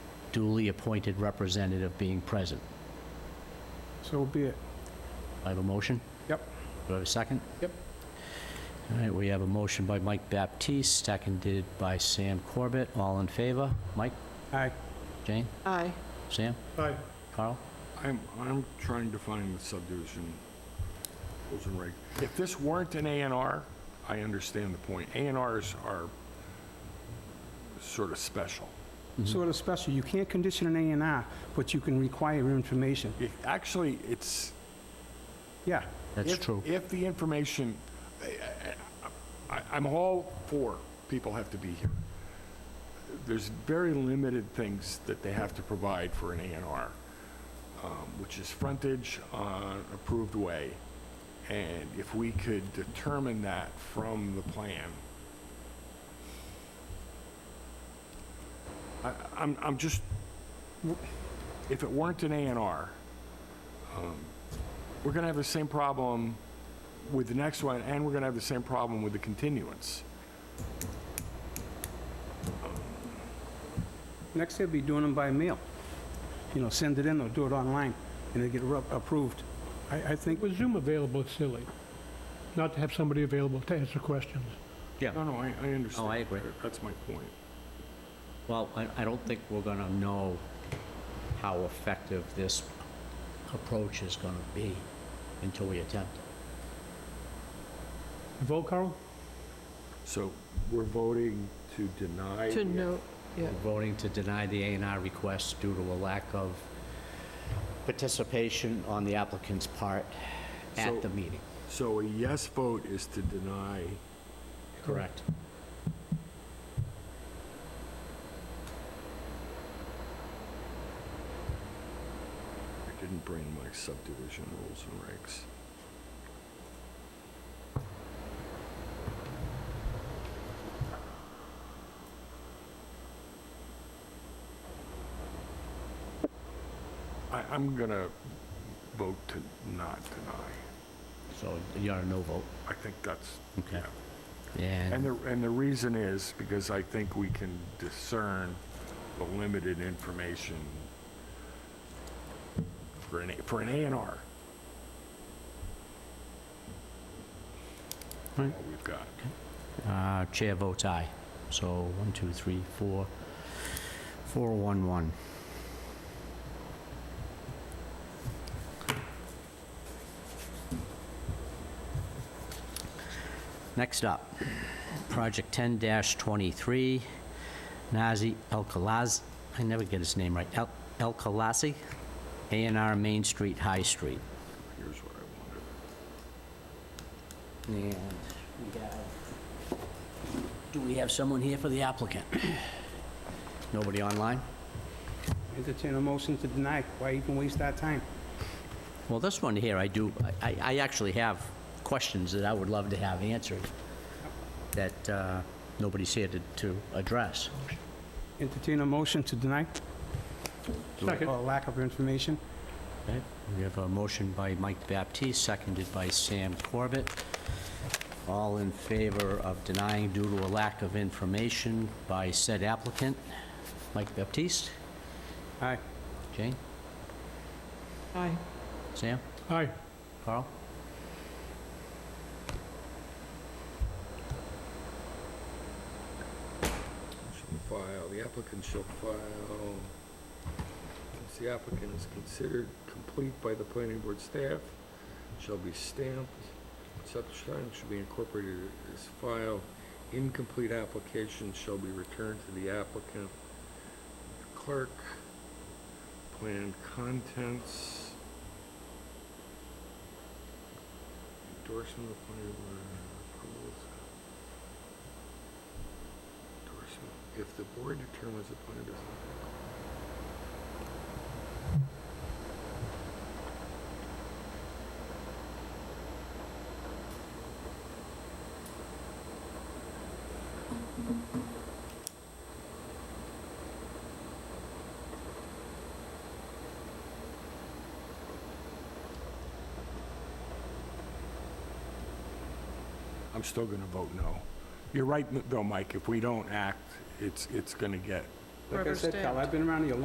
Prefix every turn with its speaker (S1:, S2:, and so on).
S1: duly appointed representative being present.
S2: So be it.
S1: I have a motion?
S2: Yep.
S1: Do I have a second?
S2: Yep.
S1: All right, we have a motion by Mike Baptiste, seconded by Sam Corbett. All in favor? Mike,
S2: Aye.
S1: Jane,
S3: Aye.
S1: Sam,
S2: Aye.
S1: Carl?
S4: I'm, I'm trying to find the subdivision rules and reg. If this weren't an A and R, I understand the point. A and Rs are sort of special.
S2: Sort of special. You can't condition an A and R, but you can require information.
S4: It- Actually, it's.
S2: Yeah.
S1: That's
S4: if-
S1: true.
S4: If the information, I- I- I'm all for people have to be here. There's very limited things that they have to provide for an A and R, um, which is frontage on approved way. And if we could determine that from the plan, I- I'm, I'm just, if it weren't an A and R, we're going to have the same problem with the next one, and we're going to have the same problem with the continuance.
S2: Next, they'll be doing them by mail. You know, send it in or do it online, and they get ru- approved. I, I think,
S5: With Zoom available, it's silly not to have somebody available to answer questions.
S4: No, no, I, I understand.
S1: Oh, I agree.
S4: That's my point.
S1: Well, I, I don't think we're gonna know how effective this approach is gonna be until we attempt it.
S5: You Vote, Carl?
S4: So we're voting to deny.
S3: To
S4: the-
S3: no, yeah.
S1: We're voting to deny the A and R request due to a lack of participation on the applicant's part
S4: So-
S1: at the meeting.
S4: So a yes vote is to deny,
S1: Correct.
S4: I didn't bring my subdivision rules and regs. I, I'm going to vote to not deny.
S1: So you're a no vote.
S4: I think that's,
S1: Okay.
S4: yeah. And
S1: And
S4: the, and the reason is because I think we can discern the limited information for an, A- for an A and R. What
S1: Right.
S4: we've got.
S1: uh, chair votes aye. So one, two, three, four, four, one, one. Next up, Project 10-23, Nazi El Khalaz, I never get his name right, El- El Khalasi, A and R Main Street, High Street.
S4: Here's what I wanted.
S1: And we have, do we have someone here for the applicant? Nobody online?
S2: entertain a motion to deny. Why even waste our time?
S1: Well, this one here, I do, I, I actually have questions that I would love to have answered that uh, nobody's here to, to address.
S2: Entertain a motion to deny?
S5: Second.
S2: Or lack of information?
S1: Okay, We have a motion by Mike Baptiste, seconded by Sam Corbett. All in favor of denying due to a lack of information by said applicant. Mike Baptiste?
S2: Aye.
S1: Jane?
S3: Aye.
S1: Sam?
S5: Aye.
S1: Carl?
S6: shall file, the applicant shall file, since the applicant is considered complete by the planning board staff, shall be stamped, such time shall be incorporated as file, incomplete application shall be returned to the applicant, clerk, plan contents, endorsement of planning board approvals, endorsement, if the board determines the plan does not
S4: I'm still going to vote no. You're right, though, Mike, if we don't act, it's, it's going to get
S2: Like I
S3: Rubber
S2: said, Cal,
S3: stamped.
S2: I've been around here a